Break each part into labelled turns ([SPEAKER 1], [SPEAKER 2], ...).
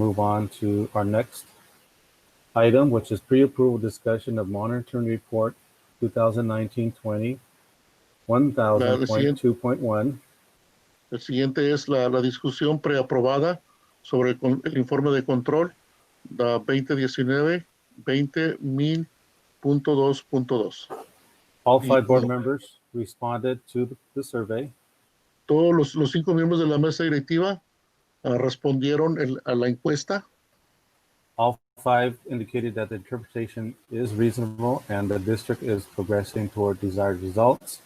[SPEAKER 1] move on to our next item, which is pre-approval discussion of monitoring report 2019-20,
[SPEAKER 2] Madam President.
[SPEAKER 1] 1000.2.1.
[SPEAKER 2] El siguiente es la, la discusión preaprobada sobre el, con- el informe de control da 2019 20.000.2.2.
[SPEAKER 1] All
[SPEAKER 2] Y-
[SPEAKER 1] five board members responded to the survey.
[SPEAKER 2] Todos los, los cinco miembros de la mesa directiva ah, respondieron el- a la encuesta.
[SPEAKER 1] All five indicated that the interpretation is reasonable and the district is progressing toward desired results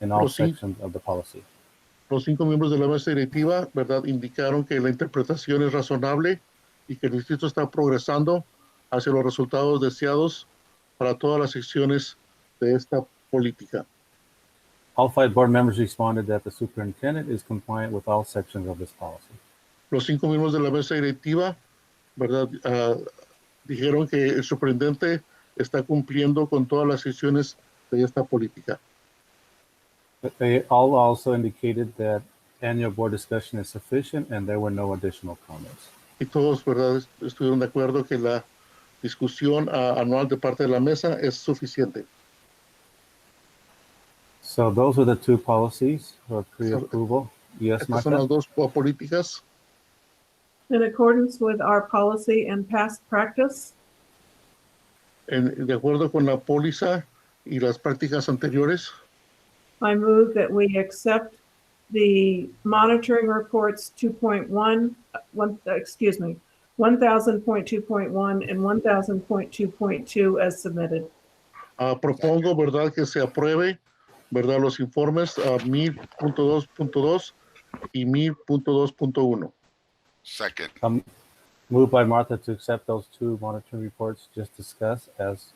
[SPEAKER 1] in all
[SPEAKER 2] Proceed.
[SPEAKER 1] sections of the policy.
[SPEAKER 2] Los cinco miembros de la mesa directiva, ¿verdad?, indicaron que la interpretación es razonable y que el distrito está progresando hacia los resultados deseados para todas las secciones de esta política.
[SPEAKER 1] All five board members responded that the superintendent is compliant with all sections of this policy.
[SPEAKER 2] los cinco miembros de la mesa directiva, ¿verdad? Ah, dijeron que el superintendente está cumpliendo con todas las decisiones de esta política.
[SPEAKER 1] But they all also indicated that annual board discussion is sufficient and there were no additional comments.
[SPEAKER 2] Y todos, ¿verdad? Est- Estuvieron de acuerdo que la discusión ah, anual de parte de la mesa es suficiente.
[SPEAKER 1] So those are the two policies for pre-approval. Yes,
[SPEAKER 2] Estas son las
[SPEAKER 1] Martha?
[SPEAKER 2] dos po- políticas.
[SPEAKER 3] In accordance with our policy and past practice,
[SPEAKER 2] en- de acuerdo con la póliza y las prácticas anteriores,
[SPEAKER 3] I move that we accept the monitoring reports 2.1, uh, one, uh, excuse me, 1000.2.1 and 1000.2.2 as submitted.
[SPEAKER 2] Ah, propongo, ¿verdad?, que se apruebe, ¿verdad?, los informes ah, a 1000.2.2 y 1000.2.1.
[SPEAKER 4] Second,
[SPEAKER 1] Um, Moved by Martha to accept those two monitoring reports just discussed as,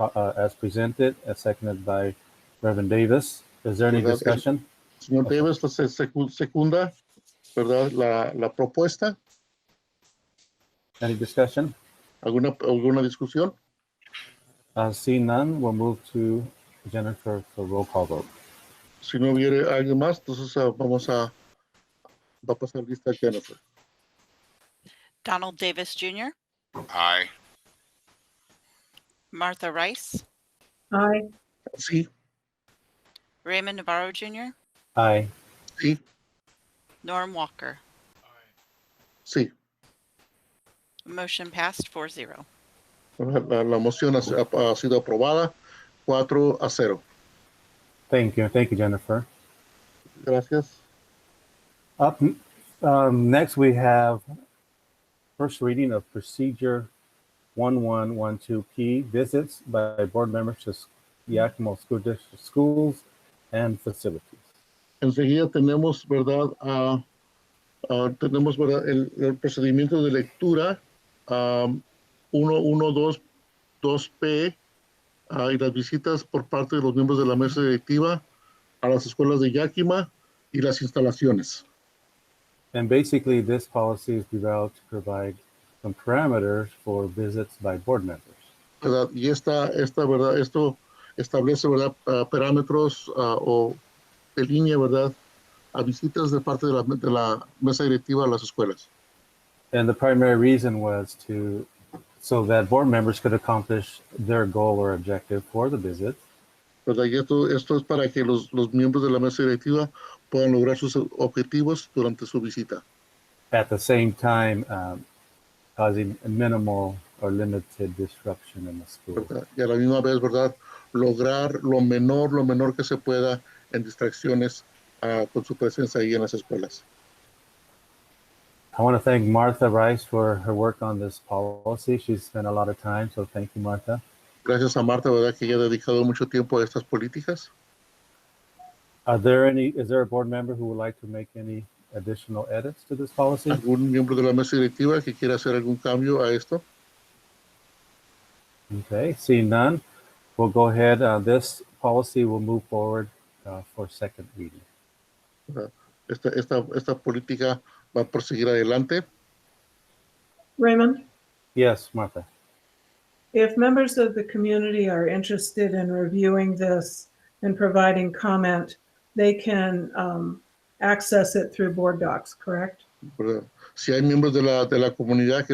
[SPEAKER 1] uh, uh, as presented, as seconded by Reverend Davis. Is there any
[SPEAKER 2] Without any-
[SPEAKER 1] discussion?
[SPEAKER 2] Señor Davis, se secu- secunda, ¿verdad?, la, la propuesta.
[SPEAKER 1] Any discussion?
[SPEAKER 2] ¿Alguna, alguna discusión?
[SPEAKER 1] Uh, Seeing none, we'll move to Jennifer for roll call vote.
[SPEAKER 2] Si no hubiere alguien más, entonces ah, vamos a, va a pasar lista Jennifer.
[SPEAKER 5] Donald Davis Jr.,
[SPEAKER 4] aye.
[SPEAKER 5] Martha Rice,
[SPEAKER 3] Aye.
[SPEAKER 2] Sí,
[SPEAKER 5] Raymond Navarro Jr.,
[SPEAKER 1] Aye.
[SPEAKER 2] sí,
[SPEAKER 5] Norm Walker.
[SPEAKER 2] sí.
[SPEAKER 5] Motion passed 4-0.
[SPEAKER 2] La, la moción ha, ha sido aprobada 4 a 0.
[SPEAKER 1] Thank you. Thank you, Jennifer.
[SPEAKER 2] Gracias.
[SPEAKER 1] Up um, next, we have first reading of procedure 1112P visits by board members to Yakima School District schools and facilities.
[SPEAKER 2] enseguida tenemos, ¿verdad? Ah, ah, tenemos, ¿verdad? El, el procedimiento de lectura am, 112 2P ah, y las visitas por parte de los miembros de la mesa directiva a las escuelas de Yakima y las instalaciones.
[SPEAKER 1] And basically, this policy is developed to provide some parameters for visits by board members.
[SPEAKER 2] ¿verdad? Y esta, esta, ¿verdad? Esto establece, ¿verdad? Ah, parámetros ah, o de línea, ¿verdad? A visitas de parte de la, de la mesa directiva a las escuelas.
[SPEAKER 1] And the primary reason was to so that board members could accomplish their goal or objective for the visit.
[SPEAKER 2] ¿verdad? Y esto, esto es para que los, los miembros de la mesa directiva puedan lograr sus objetivos durante su visita,
[SPEAKER 1] at the same time um, causing minimal or limited disruption in the school.
[SPEAKER 2] ¿verdad? Y a la misma vez, ¿verdad? Lograr lo menor, lo menor que se pueda en distracciones ah, con su presencia ahí en las escuelas.
[SPEAKER 1] I want to thank Martha Rice for her work on this policy. She's spent a lot of time, so thank you, Martha.
[SPEAKER 2] Gracias a Marta, ¿verdad? Que ya ha dedicado mucho tiempo a estas políticas.
[SPEAKER 1] Are there any? Is there a board member who would like to make any additional edits to this policy?
[SPEAKER 2] ¿Algún miembro de la mesa directiva que quiera hacer algún cambio a esto?
[SPEAKER 1] Okay, seeing none, we'll go ahead. Uh, this policy will move forward uh, for second reading.
[SPEAKER 2] Esta, esta, esta política va a proseguir adelante.
[SPEAKER 3] Raymond?
[SPEAKER 1] Yes, Martha.
[SPEAKER 3] If members of the community are interested in reviewing this and providing comment, they can um, access it through Board Docs, correct?
[SPEAKER 2] ¿verdad? Si hay miembros de la, de la comunidad que